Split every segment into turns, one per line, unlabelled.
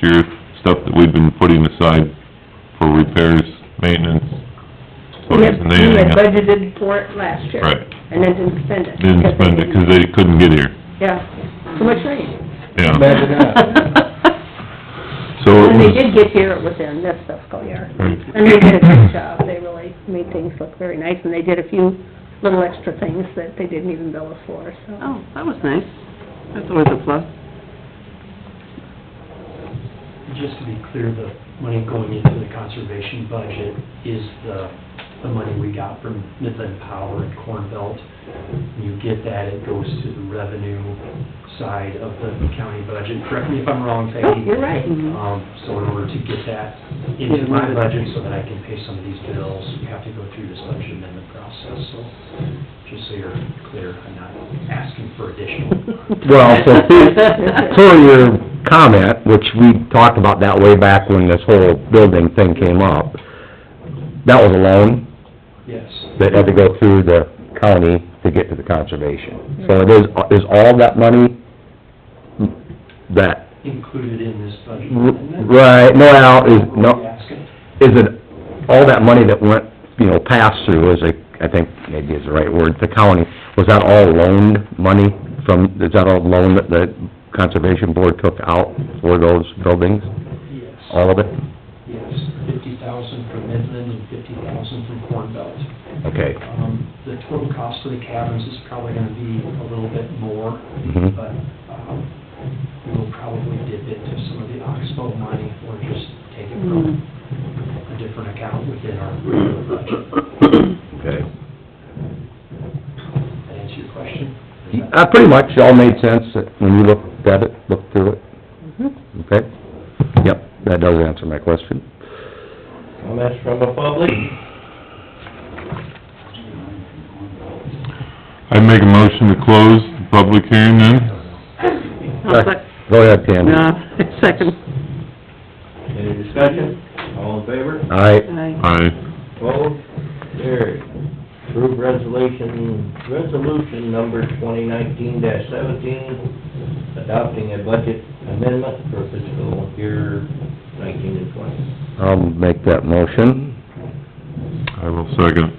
sheriff stuff that we've been putting aside for repairs, maintenance. So
We had,
isn't
we
anything
had
else?
budgeted for it last year.
Right.
And then didn't spend it.
Didn't spend it, 'cause they couldn't get here,
Yeah, too much rain.
yeah.
Imagine that.
So it
When they
was,
did get here, it was in this fiscal year.
Right.
And they did a great job, they really made things look very nice, and they did a few little extra things that they didn't even bill us for, so.
Oh, that was nice. That's always a plus.
Just to be clear, the money going into the conservation budget is the, the money we got from Midland Power and Corn Belt. When you get that, it goes to the revenue side of the county budget. Correct me if I'm wrong,
Oh,
Peggy.
you're right.
Um, so in order to get that
Yeah,
into my
right.
budget so that I can pay some of these bills, you have to go through this budget amendment process, so just so you're clear, I'm not asking for additional.
Well, so, per your comment, which we talked about that way back when this whole building thing came up, that was a loan
Yes.
that had to go through the county to get to the conservation. So it is, is all that money that,
Included in this budget amendment.
right, no, out
Are
is,
you
no,
asking?
is it, all that money that went, you know, passed through, is it, I think maybe is the right word, the county, was that all loaned money from, is that all loan that the conservation board took out for those buildings,
Yes,
all of it?
yes, fifty thousand from Midland and fifty thousand from Corn Belt.
Okay.
Um, the total cost for the cabins is probably gonna be a little bit more,
Mhm.
but, um, we'll probably dip into some of the Oxbow money or just take it from a different account within our regular budget.
Okay.
That answer your question?
Uh, pretty much all made sense when you looked at it, looked through it, okay? Yep, that does answer my question.
Comments from the public?
I make a motion to close the public hearing then.
I'll sec-
Go ahead, Tammy.
Oh, No, second.
Any discussion? All in favor?
All right,
Aye.
Aye,
Opposed? Carried. Approve resolution, resolution number twenty nineteen seventeen, adopting a budget amendment for fiscal year nineteen and twenty.
I'll um, make that motion.
I will second.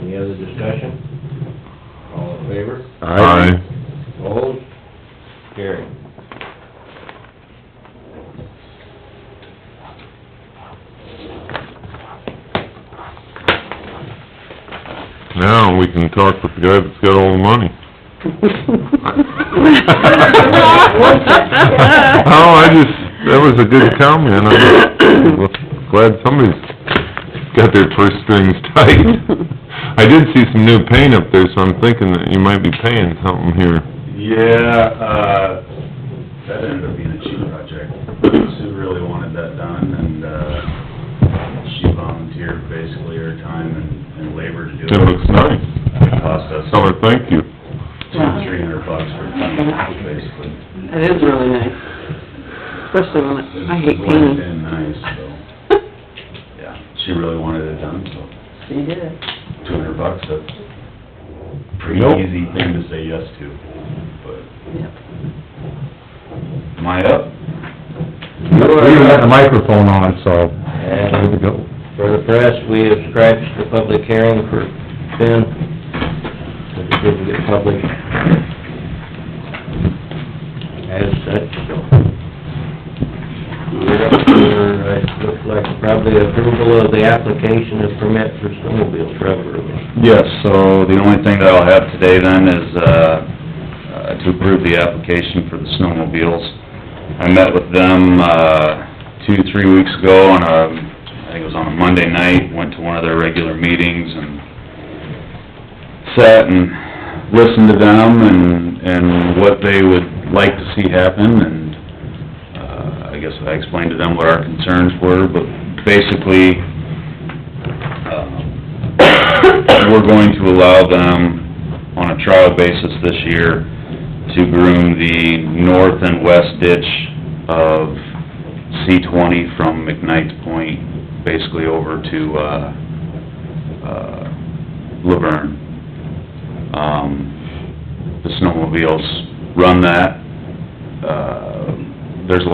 Any other discussion? All in favor?
All right.
Aye,
Opposed? Carried.
now we can talk with the guy that's got all the money. Oh, I just, that was a good comment, I'm glad somebody's got their purse strings tight. I did see some new paint up there, so I'm thinking that you might be paying something here.
Yeah, uh, that ended up being a cheap project. Sue really wanted that done, and, uh, she volunteered basically her time and, and labor to do it.
It looks nice.
It cost us
Tell her thank you.
two, three hundred bucks for a ton, basically.
That is really nice, especially when, it- I hate
Blended
painting.
in nice, so, yeah, she really wanted it done, so
You did it.
two hundred bucks, that's a pretty
Nope.
easy thing to say yes to, but,
Yep.
am I up?
We even got the microphone on, so, there we
And
go.
for the press, we have scratched the public hearing for Ben, but it didn't get published. As such, so. We're up for, it looks like probably approval of the application of permit for snowmobile travel route.
Yes, so the only thing that I'll have today then is, uh, uh, to approve the application for the snowmobiles. I met with them, uh, two, three weeks ago on a, I think it was on a Monday night, went to one of their regular meetings and sat and listened to them and, and what they would like to see happen and, uh, I guess I explained to them what our concerns were, but basically, um, we're going to allow them on a trial basis this year to groom the north and west ditch of C twenty from McKnight's Point, basically over to, uh, uh, Laverne. Um, the snowmobiles run that, uh,